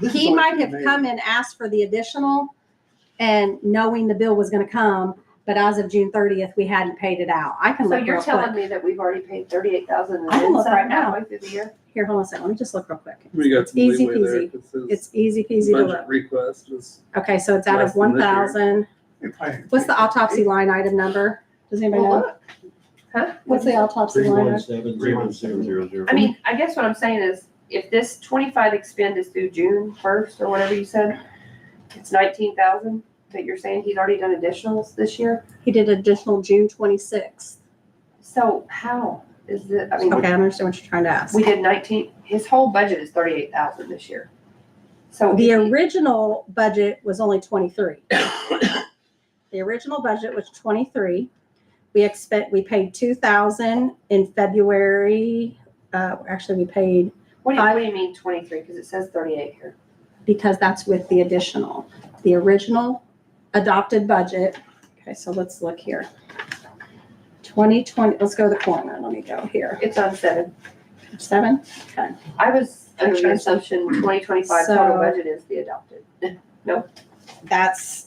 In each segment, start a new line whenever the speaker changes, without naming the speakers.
This is
He
like
might have
amazing.
come and asked for the additional and knowing the bill was gonna come, but as of June thirtieth, we hadn't paid it out. I can
So
look
you're
real quick.
telling me that we've already paid thirty-eight thousand and
I can
then
look
some
right now.
halfway through the year?
Here, hold on a second. Let me just look real quick.
We got some
Easy
leeway there.
peasy.
if It says
It's easy peasy to
budget
look.
request is
Okay, so it's out
less
of
than
one
this year.
thousand.
If I-
What's the autopsy line item number? Does anybody
Well,
know?
look. Huh?
What's the autopsy
Three
line
one
item?
seven
Three
zero
one
zero
seven
zero zero.
I mean, I guess what I'm saying is, if this twenty-five expend is through June first or whatever you said, it's nineteen thousand, but you're saying he's already done additionals this year?
He did additional June twenty-sixth.
So how is it, I mean,
Okay, I understand what you're trying to ask.
we did nineteen, his whole budget is thirty-eight thousand this year. So
The
he-
original budget was only twenty-three. The original budget was twenty-three. We expect, we paid two thousand in February. Uh, actually, we paid,
what do you, what do you mean twenty-three? Because it says thirty-eight here.
because that's with the additional. The original adopted budget, okay, so let's look here. Twenty twenty, let's go to the corner. Let me go here.
It's on seven.
Page Seven?
I was under the
Okay.
assumption twenty twenty-five total
So-
budget is the adopted.
That's.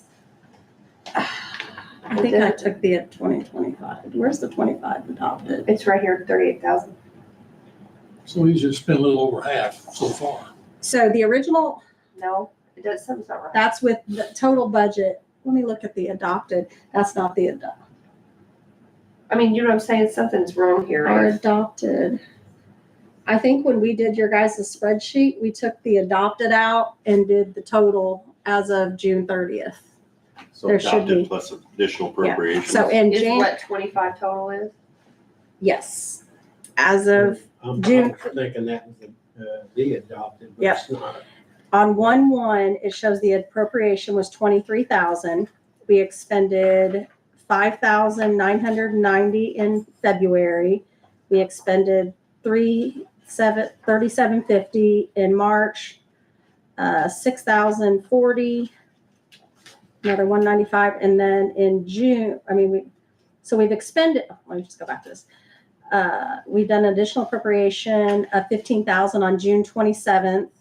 I think I took the twenty twenty-five. Where's the twenty-five adopted?
It's right here, thirty-eight thousand.
So he's just spent a little over half so far.
So the original
No, it does, something's not right.
That's with the total budget. Let me look at the adopted. That's not the ado-
I mean, you know what I'm saying? Something's wrong here.
our adopted. I think when we did your guys' spreadsheet, we took the adopted out and did the total as of June thirtieth.
So
there should be.
adopted plus additional appropriations.
So in
Is
Jan,
what twenty-five total is?
yes, as of
I'm,
June-
I'm thinking that was, uh, the adopted, but
Yep.
it's not.
on one one, it shows the appropriation was twenty-three thousand. We expended five thousand nine hundred ninety in February. We expended three seven, thirty-seven fifty in March, uh, six thousand forty, another one ninety-five, and then in June, I mean, we, so we've expended, oh, let me just go back to this. Uh, we've done additional appropriation of fifteen thousand on June twenty-seventh.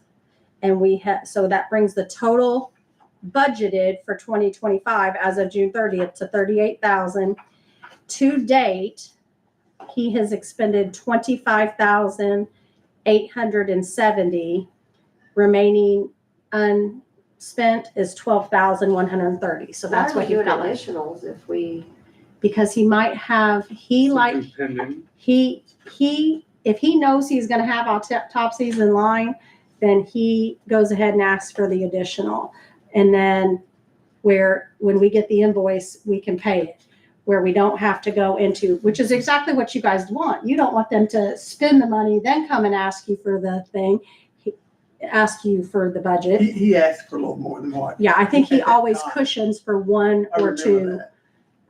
And we had, so that brings the total budgeted for twenty twenty-five as of June thirtieth to thirty-eight thousand. To date, he has expended twenty-five thousand eight hundred and seventy. Remaining unspent is twelve thousand one hundred and thirty, so that's
Why
what
are
he
we doing
got.
additionals if we,
Because he might have, he like,
something pending.
he he if he knows he's going to have autopsies in line then he goes ahead and asks for the additional and then where when we get the invoice we can pay it where we don't have to go into which is exactly what you guys want you don't want them to spend the money then come and ask you for the thing he- ask you for the budget
He, he asked for a little more than what.
yeah i think he always
I
cushions for one or
remember
two
that.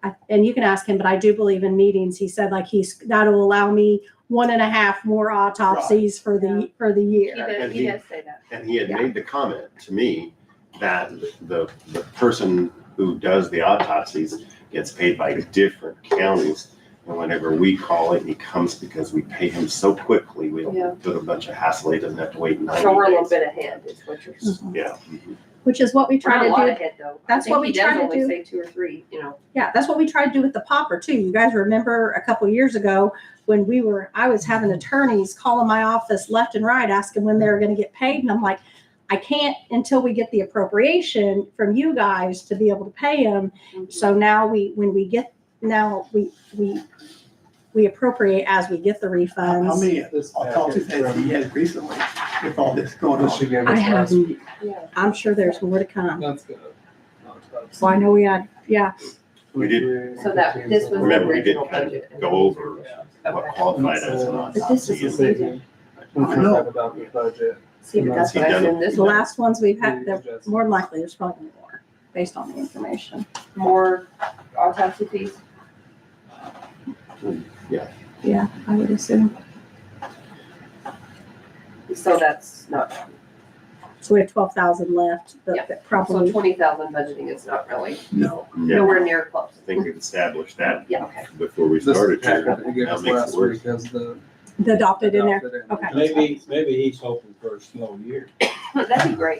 I- and you can ask him, but I do believe in meetings, he said like he's, that'll allow me one and a half more autopsies for
Yeah.
the, for the
he
year.
does,
And
he
he-
does say that.
And he had
Yeah.
made the comment to me that the, the person who does the autopsies gets paid by different counties. And whenever we call it, he comes because we pay him so quickly, we
Yeah.
don't put a bunch of hassle, he doesn't have to wait ninety
So we're a little
days.
bit ahead is what you're saying.
Yeah. mm-hmm.
Which is what Mm-hmm. we
We're not
try
a lot
to do.
ahead though. I
That's
think
what
he
we
does
try to
only
do.
Say two or three, you know.
Yeah, that's what we tried to do with the popper too. You guys remember a couple years ago when we were, I was having attorneys calling my office left and right, asking when they were gonna get paid. And I'm like, I can't until we get the appropriation from you guys to be able to pay them.
Mm-hmm.
So now we, when we get, now we, we, we appropriate as we get the
How how
refunds.
many
This
autopsies has he had recently with all this going
This
on?
she gave
I
us
have,
last week.
Yeah.
I'm sure there's more to come.
That's good. Autopsy.
So I know we had, yeah,
We did-
Twenty-three,
So that, this was the
Remember, we did
original
kind of
budget.
go over
yeah.
what
Okay.
qualified as an
But
But this
autopsy.
is,
and-
easy.
see,
Once we
I know.
talk about the budget.
but that's
He
what I
done it.
said, this
the
was
last ones we've had,
we
they're
adjust.
more than likely, there's probably more, based on the information.
more autopsy fees.
Yeah, I would assume.
So that's not,
So we have twelve thousand left,
Yeah.
but that
so
probably,
twenty thousand budgeting is not really,
No.
Yeah,
nowhere near close.
I think we've established that
Yeah, okay.
before we
This is the
started here.
packet they gave
Now
us
makes it
last
worse.
week as the.
the adopted in there.
adopted and
Okay.
Maybe, maybe he's hoping for a slow year.
That'd be great.